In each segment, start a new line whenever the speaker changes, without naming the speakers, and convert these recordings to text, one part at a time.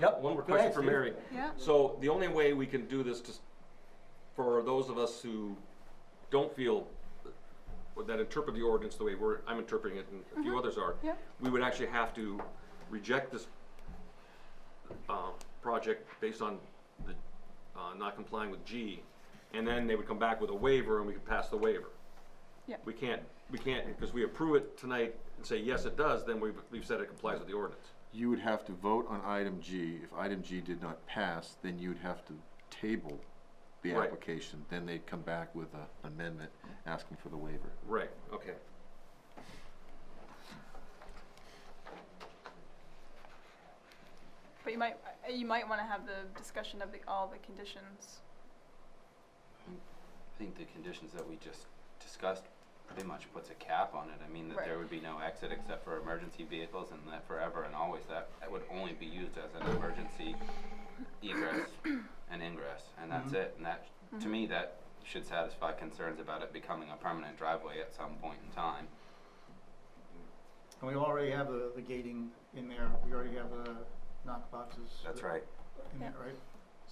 Yep.
One more
Go ahead,
question for
Steve.
Mary.
Yeah,
So the only way we can do this to, s- for those of us who don't feel that interpret the ordinance the way we're, I'm interpreting it and a few others are.
Yep.
We would actually have to reject this, uh, project based on the, uh, not complying with G. And then they would come back with a waiver and we could pass the waiver.
Yep.
We can't, we can't, because we approve it tonight and say, yes, it does, then we've, we've said it complies with the ordinance.
You would have to vote on item G. If item G did not pass, then you'd have to table the
Right.
application. Then they'd come back with a- an amendment asking for the waiver.
Right, okay.
but you might, uh, you might wanna have the discussion of the, all the conditions.
I think the conditions that we just discussed pretty much puts a cap on it. I mean, that
Right.
there would be no exit except for emergency vehicles and that forever and always that, that would only be used as an emergency egress and ingress, and
Mm-hmm.
that's it. And that,
Mm-hmm.
to me, that should satisfy concerns about it becoming a permanent driveway at some point in time.
And we already have the, the gating in there, we already have the knock boxes.
That's right.
In there, right?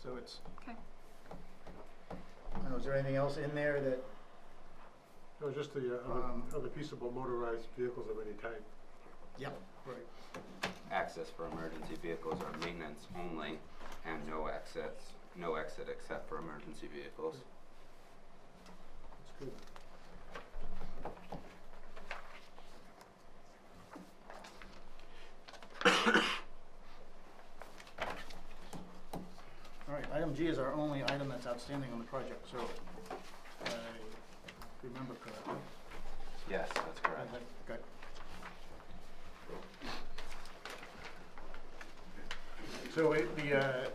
So it's,
Okay.
I don't know, is there anything else in there that,
It was just the uh,
Um,
other, other piece about motorized vehicles of any type.
yep, right,
Access for emergency vehicles are maintenance only and no exits, no exit except for emergency vehicles.
It's good.
all right. Item G is our only item that's outstanding on the project, so, I remember correctly.
Yes, that's correct.
Okay. So it, the, uh,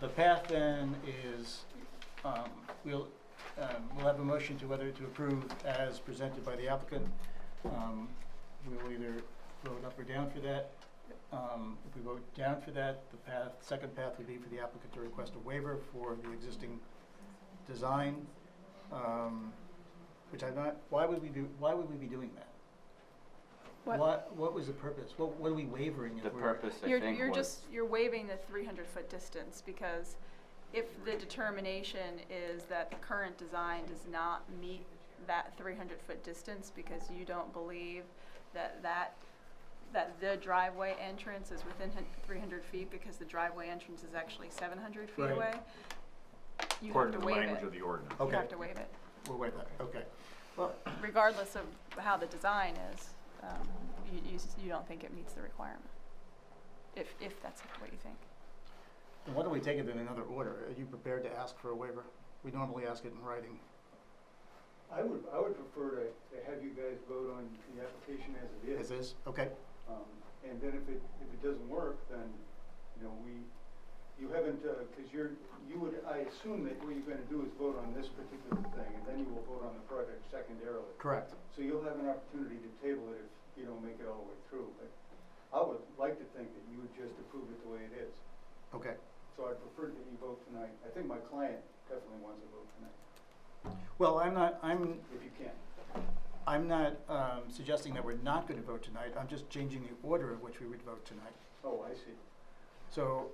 the path then is, um, we'll, um, we'll have a motion to whether to approve as presented by the applicant. Um, we'll either vote up or down for that. Um, if we vote down for that, the path, second path would be for the applicant to request a waiver for the existing design. Um, which I'm not, why would we be, why would we be doing that?
What-
What, what was the purpose? What, what are we wavering if
The
we're?
purpose, I
You're,
think,
you're
was.
just, you're waiving the three hundred foot distance, because if the determination is that the current design does not meet that three hundred foot distance, because you don't believe that that, that the driveway entrance is within three hundred feet, because the driveway entrance is actually seven hundred feet
Right.
away, you
According
have to
to the
waive
language
it.
of the ordinance.
You
Okay,
have to waive it,
we'll waive that, okay. Well,
regardless of how the design is, um, you, you, s- you don't think it meets the requirement, if, if that's what you think.
then why don't we take it in another order? Are you prepared to ask for a waiver? We normally ask it in writing.
I would, I would prefer to, to have you guys vote on the application as it
As is,
is.
okay?
Um, and then if it, if it doesn't work, then, you know, we, you haven't, uh, cause you're, you would, I assume that what you're gonna do is vote on this particular thing, and then you will vote on the project secondarily.
Correct.
So you'll have an opportunity to table it if you don't make it all the way through, but I would like to think that you would just approve it the way it is.
Okay.
So I'd prefer that you vote tonight. I think my client definitely wants to vote tonight,
Well, I'm not, I'm,
if you can.
I'm not, um, suggesting that we're not gonna vote tonight. I'm just changing the order in which we would vote tonight.
Oh, I see.
So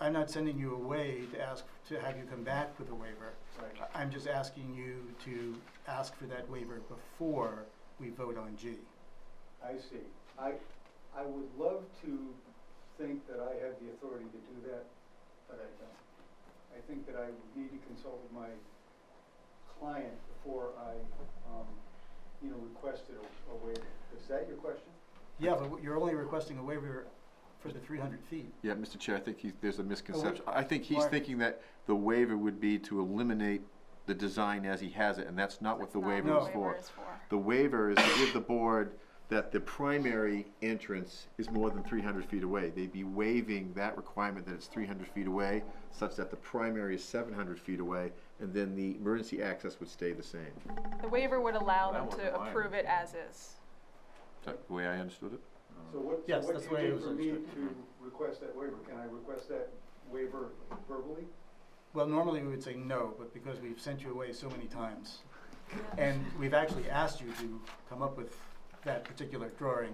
I'm not sending you away to ask, to have you come back with a waiver.
Right.
I- I'm just asking you to ask for that waiver before we vote on G.
I see. I, I would love to think that I have the authority to do that, but I don't. I think that I would need to consult with my client before I, um, you know, requested a, a waiver. Is that your question?
Yeah, but you're only requesting a waiver for the three hundred feet.
Yeah, Mr. Chair, I think he's, there's a misconception. I think he's
Mark.
thinking that the waiver would be to eliminate the design as he has it, and that's not what the
That's not
waiver
what
is
the
for. The waiver is to give the board that the primary entrance is more than three hundred feet away. They'd be waiving that requirement that it's three hundred feet away, such that the primary is seven hundred feet away, and then the emergency access would stay the same.
The waiver would allow
That
them
was
to
mine.
approve it as is.
Is that the way I understood it?
So what, so
Yes,
what
that's
do
the way it
you need
was
for me
understood.
to request that waiver? Can I request that waiver verbally?
Well, normally we would say no, but because we've sent you away so many times, and we've actually asked you to come up with that particular drawing,